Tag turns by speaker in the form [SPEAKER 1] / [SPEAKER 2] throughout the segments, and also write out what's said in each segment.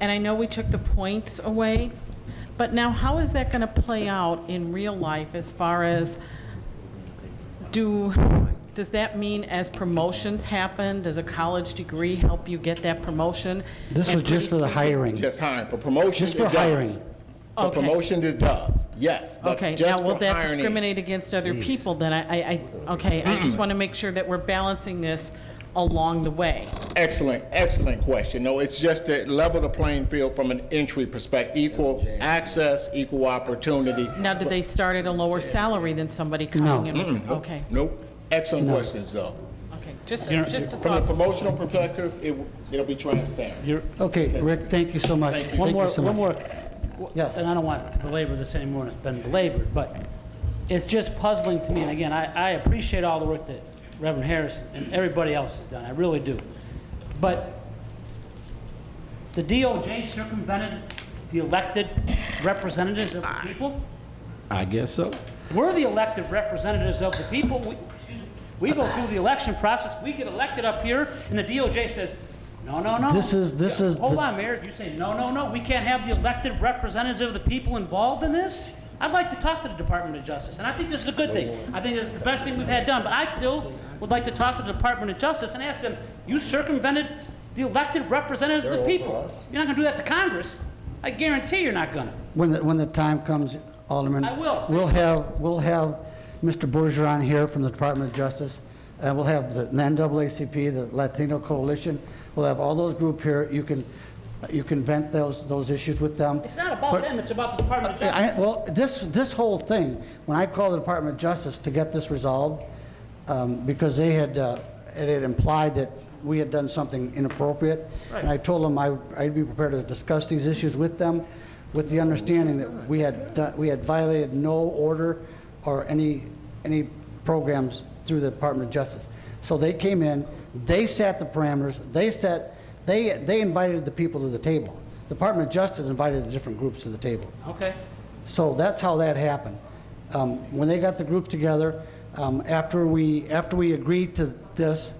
[SPEAKER 1] And I know we took the points away, but now how is that going to play out in real life as far as, do, does that mean as promotions happen, does a college degree help you get that promotion?
[SPEAKER 2] This was
[SPEAKER 1] And
[SPEAKER 2] just for the
[SPEAKER 1] pretty soon-
[SPEAKER 2] hiring.
[SPEAKER 3] Just hiring, for promotion,
[SPEAKER 2] Just for
[SPEAKER 3] it does.
[SPEAKER 2] hiring.
[SPEAKER 3] For
[SPEAKER 1] Okay.
[SPEAKER 3] promotion, it does, yes. but
[SPEAKER 1] Okay,
[SPEAKER 3] just
[SPEAKER 1] now will
[SPEAKER 3] for
[SPEAKER 1] that
[SPEAKER 3] hiring, it-
[SPEAKER 1] discriminate against other people then? I, I, I- okay, I just want to make sure that we're balancing this along the way.
[SPEAKER 3] Excellent, excellent question. No, it's just to level the playing field from an entry perspective, equal access, equal opportunity.
[SPEAKER 1] Now, did they start at a lower salary than somebody
[SPEAKER 2] No.
[SPEAKER 1] coming in? No. Okay,
[SPEAKER 3] Nope, excellent questions, though.
[SPEAKER 1] okay, just,
[SPEAKER 2] You know,
[SPEAKER 1] just a
[SPEAKER 3] From a
[SPEAKER 1] thought.
[SPEAKER 3] promotional perspective, it, w- it'll be transparent.
[SPEAKER 2] Okay, Rick, thank you so much. Thank
[SPEAKER 4] One
[SPEAKER 2] you
[SPEAKER 4] more,
[SPEAKER 2] so much.
[SPEAKER 4] one more.
[SPEAKER 2] Yes.
[SPEAKER 4] And I don't want to belabor this anymore, and it's been belabored, but it's just puzzling to me. And again, I, I appreciate all the work that Reverend Harris and everybody else has done, I really do. But the DOJ circumvented the elected representatives of the people?
[SPEAKER 5] I guess so.
[SPEAKER 4] We're the elected representatives of the people. We- excuse me, We go through the election process, we get elected up here, and the DOJ says, no, no, no.
[SPEAKER 2] This is, this is,
[SPEAKER 4] Hold
[SPEAKER 2] the-
[SPEAKER 4] on, Mayor, you say, no, no, no, we can't have the elected representative of the people involved in this? I'd like to talk to the Department of Justice, and I think this is a good thing. I think this is the best thing we've had done, but I still would like to talk to the Department of Justice and ask them, you circumvented the elected representatives of the people. You're not gonna do that to Congress. I guarantee you're not gonna.
[SPEAKER 2] when, the when the time comes, Alderman.
[SPEAKER 4] I will.
[SPEAKER 2] We'll have, we'll have Mr. Bergeron here from the Department of Justice, and we'll have the NAACP, the Latino Coalition, we'll have all those group here. You can, you can vent those, those issues with them.
[SPEAKER 4] It's not about
[SPEAKER 2] But-
[SPEAKER 4] them, it's about the Department of Justice.
[SPEAKER 2] I- I- Well, this, this whole thing, when I called the Department of Justice to get this resolved, um, because they had, uh, it had implied that we had done something inappropriate. And I told them I, I'd be prepared to discuss these issues with them, with the understanding that we had, done- we had violated no order or any, any programs through the Department of Justice. So they came in, they set the parameters, they set, they, they invited the people to the table. Department of Justice invited the different groups to the table.
[SPEAKER 4] Okay.
[SPEAKER 2] So that's how that happened. Um, When they got the group together, um, after we, after we agreed to this,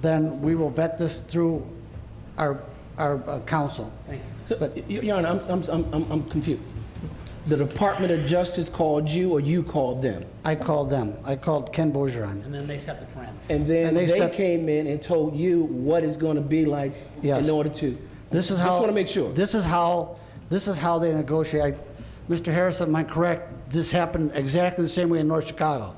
[SPEAKER 2] then we will vet this through our, our uh, council.
[SPEAKER 6] So, y- Your Honor, I'm- I'm- I'm I'm- I'm confused. The Department of Justice called you, or you called them?
[SPEAKER 2] I called them, I called Ken Bergeron.
[SPEAKER 4] And then they set the parameters.
[SPEAKER 6] And then
[SPEAKER 2] And they
[SPEAKER 6] they
[SPEAKER 2] set-
[SPEAKER 6] came in and told you what it's going to be like
[SPEAKER 2] Yes.
[SPEAKER 6] in order to?
[SPEAKER 2] This is how.
[SPEAKER 6] Just want to make sure.
[SPEAKER 2] This is how, this is how they negotiate. I- Mr. Harrison, am I correct? This happened exactly the same way in North Chicago.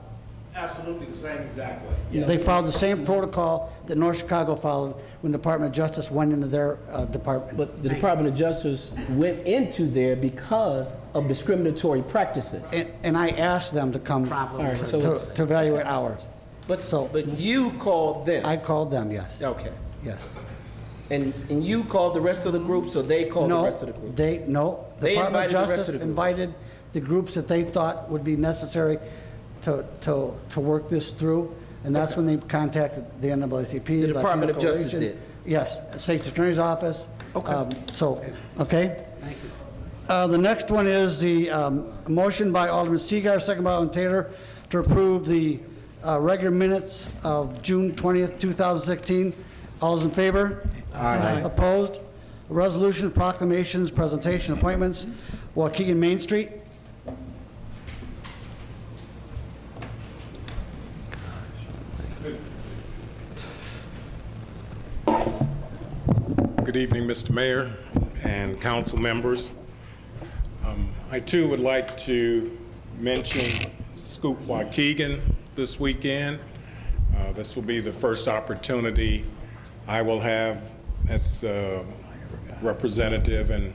[SPEAKER 7] Absolutely the same exact way.
[SPEAKER 2] They followed the same protocol that North Chicago followed when the Department of Justice went into their uh, department.
[SPEAKER 6] But the Department of Justice went into there because of discriminatory practices.
[SPEAKER 2] And, and I asked them to come
[SPEAKER 6] All right,
[SPEAKER 2] to
[SPEAKER 6] so it's-
[SPEAKER 2] to evaluate ours.
[SPEAKER 6] But,
[SPEAKER 2] So-
[SPEAKER 6] but you called them?
[SPEAKER 2] I called them, yes,
[SPEAKER 6] Okay.
[SPEAKER 2] yes.
[SPEAKER 6] And, and you called the rest of the group, so they called the
[SPEAKER 2] No,
[SPEAKER 6] rest of the group?
[SPEAKER 2] they, no. the
[SPEAKER 6] They
[SPEAKER 2] Department of
[SPEAKER 6] invited the rest of
[SPEAKER 2] Justice
[SPEAKER 6] the groups.
[SPEAKER 2] Invited the groups that they thought would be necessary to, to, to work this through. And that's when they contacted the NAACP.
[SPEAKER 6] The Department
[SPEAKER 2] Latino
[SPEAKER 6] of Justice
[SPEAKER 2] Coalition.
[SPEAKER 6] did.
[SPEAKER 2] Yes, State's Attorney's Office.
[SPEAKER 6] Okay.
[SPEAKER 2] Um, So, okay? Uh, The next one is the um, motion by Alderman Seager, second by Alderman Taylor, to approve the uh, regular minutes of June 20th, 2016. All those in favor? Aye. Opposed? Resolution, proclamations, presentation, appointments, Waukegan Main Street.
[SPEAKER 8] Good evening, Mr. Mayor and council members. Um, I too would like to mention Scoop Waukegan this weekend. Uh, This will be the first opportunity I will have as uh, representative and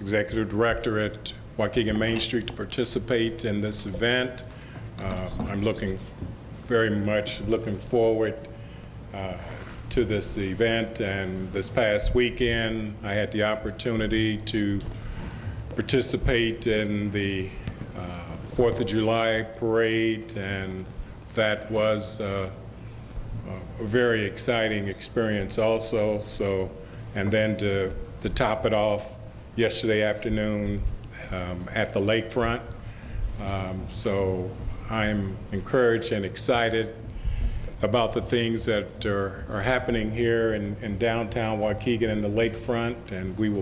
[SPEAKER 8] executive director at Waukegan Main Street to participate in this event. Uh, I'm looking, very much looking forward uh, to this event, and this past weekend, I had the opportunity to participate in the uh, Fourth of July parade, and that was uh, a very exciting experience also, so, and then to, to top it off yesterday afternoon um, at the lakefront. Um, So I'm encouraged and excited about the things that are, are happening here in, in downtown Waukegan and the lakefront, and we will